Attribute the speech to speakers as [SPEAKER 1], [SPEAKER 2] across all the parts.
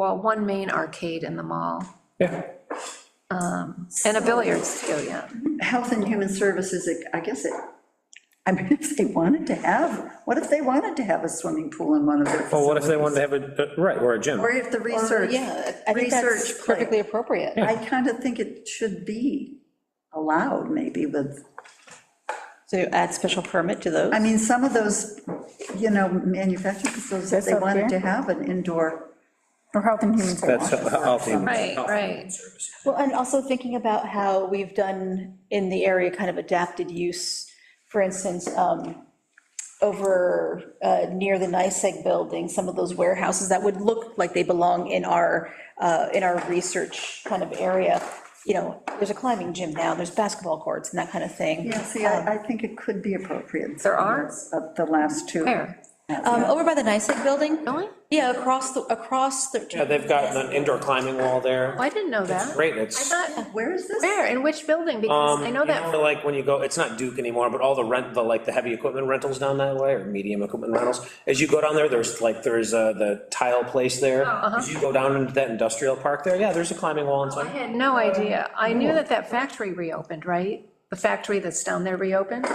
[SPEAKER 1] well, one main arcade in the mall,
[SPEAKER 2] Yeah,
[SPEAKER 1] and a billiards too, yeah.
[SPEAKER 3] Health and Human Services, it- I guess it, I mean, if they wanted to have, what if they wanted to have a swimming pool in one of their
[SPEAKER 2] well,
[SPEAKER 3] facilities?
[SPEAKER 2] what if they wanted to have a, right, or a gym?
[SPEAKER 3] Or if the research,
[SPEAKER 4] Yeah, I think that's
[SPEAKER 3] research plan.
[SPEAKER 4] perfectly appropriate.
[SPEAKER 3] I kind of think it should be allowed, maybe, with,
[SPEAKER 4] So add special permit to those.
[SPEAKER 3] I mean, some of those, you know, manufacturing facilities, if
[SPEAKER 5] That's
[SPEAKER 3] they
[SPEAKER 5] up
[SPEAKER 3] wanted to
[SPEAKER 5] here?
[SPEAKER 3] have an indoor,
[SPEAKER 5] Or Health and Human
[SPEAKER 2] That's
[SPEAKER 5] Services.
[SPEAKER 2] healthy.
[SPEAKER 1] Right, right.
[SPEAKER 4] Well, and also thinking about how we've done in the area kind of adapted use, for instance, um, over uh, near the NICEAG building, some of those warehouses that would look like they belong in our, uh, in our research kind of area. You know, there's a climbing gym now, there's basketball courts and that kind of thing.
[SPEAKER 3] yeah, see, I, I think it could be appropriate.
[SPEAKER 1] There are?
[SPEAKER 3] Of the last two.
[SPEAKER 1] Where?
[SPEAKER 4] Um, Over by the NICEAG building?
[SPEAKER 1] Really? Oh,
[SPEAKER 4] Yeah, across the, across the.
[SPEAKER 2] Yeah, they've got an indoor climbing wall there.
[SPEAKER 1] Oh, I didn't know that.
[SPEAKER 2] Great,
[SPEAKER 1] I
[SPEAKER 2] it's,
[SPEAKER 1] thought,
[SPEAKER 3] Where is this?
[SPEAKER 1] where, in which building? Because
[SPEAKER 2] um,
[SPEAKER 1] I
[SPEAKER 2] you
[SPEAKER 1] know that,
[SPEAKER 2] know, like, when you go, it's not Duke anymore, but all the rent, the, like, the heavy equipment rentals down that way, or medium equipment rentals, as you go down there, there's, like, there's, uh, the tile place there. As you go down into that industrial park there, yeah, there's a climbing wall and
[SPEAKER 1] I
[SPEAKER 2] stuff.
[SPEAKER 1] had no idea. I knew that that factory reopened, right? The factory that's down there reopened?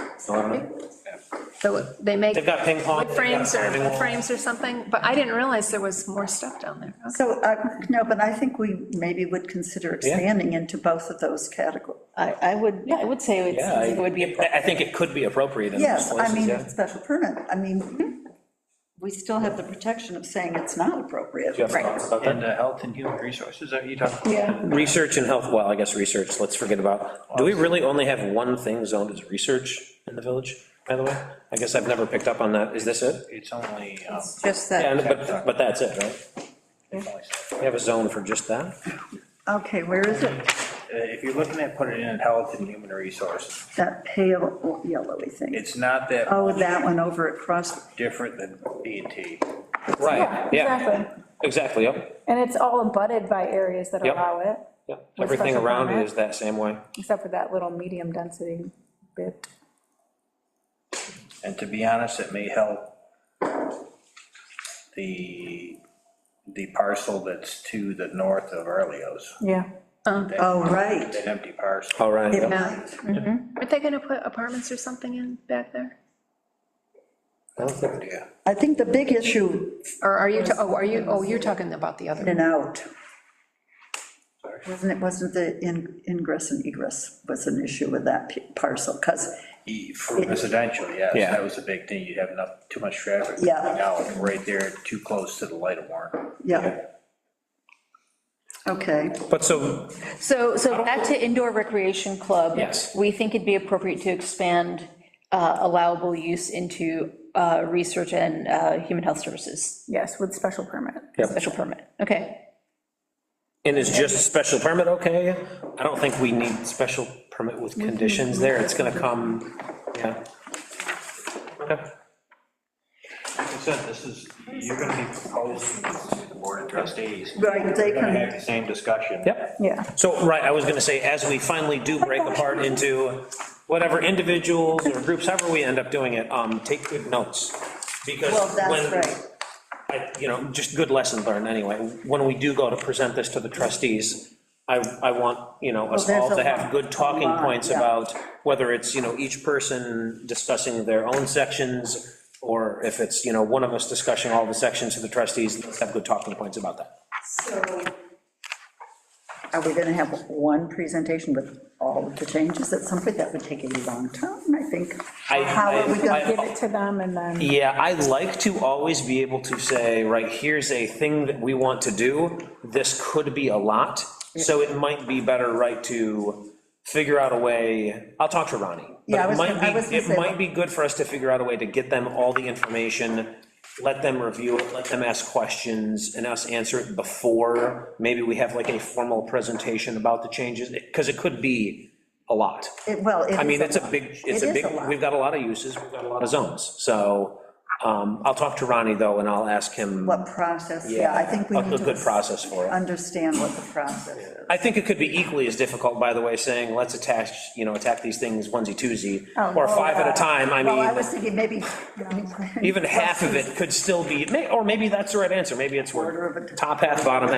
[SPEAKER 1] So they make.
[SPEAKER 2] They've got ping pong,
[SPEAKER 1] wood
[SPEAKER 2] they've got
[SPEAKER 1] Frames or,
[SPEAKER 2] climbing
[SPEAKER 1] wood
[SPEAKER 2] wall.
[SPEAKER 1] frames or something, but I didn't realize there was more stuff down there. Okay.
[SPEAKER 3] So, I- no, but I think we maybe would consider expanding into both of those categories.
[SPEAKER 4] I, I would, yeah, I would say it's-
[SPEAKER 2] Yeah,
[SPEAKER 4] it would be.
[SPEAKER 2] I- I think it could be appropriate in those
[SPEAKER 3] Yes, I
[SPEAKER 2] places,
[SPEAKER 3] mean,
[SPEAKER 2] yeah.
[SPEAKER 3] special permit, I mean, Mm-hmm. we still have the protection of saying it's not appropriate.
[SPEAKER 2] Do you have thoughts about that?
[SPEAKER 6] And uh, health and human resources, are you talking?
[SPEAKER 4] Yeah.
[SPEAKER 2] Research and health, well, I guess research, let's forget about, do we really only have one thing zoned as research in the village, by the way? I guess I've never picked up on that, is this it?
[SPEAKER 6] It's only, um,
[SPEAKER 4] Just
[SPEAKER 2] Yeah,
[SPEAKER 4] that,
[SPEAKER 2] and- but, but that's it, right?
[SPEAKER 6] it's only- uh,
[SPEAKER 2] We have a zone for just that?
[SPEAKER 3] Okay, where is it?
[SPEAKER 6] Uh, if you're looking at putting in health and human resources,
[SPEAKER 3] That pale yellowy thing.
[SPEAKER 6] it's not that
[SPEAKER 3] Oh, that one over at Cross,
[SPEAKER 6] different than B and T.
[SPEAKER 2] Right, yeah,
[SPEAKER 5] Exactly.
[SPEAKER 2] exactly, yep,
[SPEAKER 5] And it's all abutted by areas that
[SPEAKER 2] Yep.
[SPEAKER 5] allow it,
[SPEAKER 2] yep.
[SPEAKER 5] With
[SPEAKER 2] Everything
[SPEAKER 5] special
[SPEAKER 2] around it
[SPEAKER 5] permit?
[SPEAKER 2] is that same way.
[SPEAKER 5] except for that little medium density bit.
[SPEAKER 6] And to be honest, it may help the, the parcel that's to the north of Arleo's,
[SPEAKER 5] Yeah.
[SPEAKER 3] oh, right.
[SPEAKER 6] that empty parcel.
[SPEAKER 2] All right,
[SPEAKER 3] It
[SPEAKER 2] yep.
[SPEAKER 3] might.
[SPEAKER 1] Aren't they gonna put apartments or something in back there?
[SPEAKER 6] Yeah.
[SPEAKER 3] I think the big issue
[SPEAKER 1] Or are you, ta- oh, are you, oh, you're talking about the
[SPEAKER 3] in
[SPEAKER 1] other.
[SPEAKER 3] and out. Wasn't it, wasn't the in- ingress and egress was an issue with that p- parcel? Because,
[SPEAKER 6] E- For residential, yes,
[SPEAKER 2] Yeah.
[SPEAKER 6] that was a big thing, you'd have enough, too much traffic.
[SPEAKER 3] Yeah.
[SPEAKER 6] coming out right there, too close to the light of warrant.
[SPEAKER 3] yeah. Okay,
[SPEAKER 2] But so,
[SPEAKER 4] so, so back to indoor recreation club.
[SPEAKER 2] Yes.
[SPEAKER 4] We think it'd be appropriate to expand uh, allowable use into uh, research and uh, human health services,
[SPEAKER 5] Yes, with special permit.
[SPEAKER 4] special permit, okay.
[SPEAKER 2] and is just special permit okay? I don't think we need special permit with
[SPEAKER 5] Mm-hmm.
[SPEAKER 2] conditions there, it's gonna come, yeah. Okay.
[SPEAKER 6] Like I said, this is, you're gonna be proposing this to the board of trustees.
[SPEAKER 3] right, they
[SPEAKER 6] You're gonna
[SPEAKER 3] can,
[SPEAKER 6] have the same discussion.
[SPEAKER 2] Yep.
[SPEAKER 5] Yeah.
[SPEAKER 2] So, right, I was gonna say, as we finally do break apart into whatever individuals or groups, however we end up doing it, um, take good notes. Because
[SPEAKER 3] well, that's
[SPEAKER 2] when,
[SPEAKER 3] right.
[SPEAKER 2] I- you know, just good lesson learned anyway. When we do go to present this to the trustees, I, I want, you know, us
[SPEAKER 3] Well,
[SPEAKER 2] all
[SPEAKER 3] there's
[SPEAKER 2] to
[SPEAKER 3] a
[SPEAKER 2] have
[SPEAKER 3] lot-
[SPEAKER 2] good
[SPEAKER 3] a
[SPEAKER 2] talking
[SPEAKER 3] lot,
[SPEAKER 2] points
[SPEAKER 3] yeah.
[SPEAKER 2] about whether it's, you know, each person discussing their own sections, or if it's, you know, one of us discussing all the sections to the trustees, let's have good talking points about that.
[SPEAKER 3] Are we going to have one presentation with all of the changes at some point? That would take a long time, I think.
[SPEAKER 2] I-
[SPEAKER 3] How are we
[SPEAKER 2] I-
[SPEAKER 3] going
[SPEAKER 2] I-
[SPEAKER 3] to
[SPEAKER 5] Give it to them and then,
[SPEAKER 2] Yeah, I like to always be able to say, right, here's a thing that we want to do, this could be a lot, so it might be better, right, to figure out a way, I'll talk to Ronnie. but
[SPEAKER 3] Yeah, I
[SPEAKER 2] it
[SPEAKER 3] was
[SPEAKER 2] might
[SPEAKER 3] gonna- I
[SPEAKER 2] be-
[SPEAKER 3] was gonna
[SPEAKER 2] It
[SPEAKER 3] say-
[SPEAKER 2] might be good for us to figure out a way to get them all the information, let them review it, let them ask questions, and us answer it before, maybe we have like a formal presentation about the changes, because it could be a lot.
[SPEAKER 3] It- Well, it is.
[SPEAKER 2] I mean, it's a
[SPEAKER 3] lot.
[SPEAKER 2] big, it's a
[SPEAKER 3] It is
[SPEAKER 2] big,
[SPEAKER 3] lot.
[SPEAKER 2] we've got a lot of uses, we've got a lot of zones, so, um, I'll talk to Ronnie, though, and I'll ask him.
[SPEAKER 3] What process, yeah, I think we
[SPEAKER 2] a-
[SPEAKER 3] need
[SPEAKER 2] A good
[SPEAKER 3] to
[SPEAKER 2] process for it.
[SPEAKER 3] understand what the process is.
[SPEAKER 2] I think it could be equally as difficult, by the way, saying, let's attach, you know, attack these things onesie-twosie,
[SPEAKER 5] Oh,
[SPEAKER 2] or
[SPEAKER 5] no,
[SPEAKER 2] five at
[SPEAKER 5] uh,
[SPEAKER 2] a time, I
[SPEAKER 3] Well, I was
[SPEAKER 2] mean,
[SPEAKER 3] thinking maybe.
[SPEAKER 2] even half of it could still be, may- or maybe that's the right answer, maybe it's
[SPEAKER 3] Order of a-
[SPEAKER 2] where, top half, bottom half.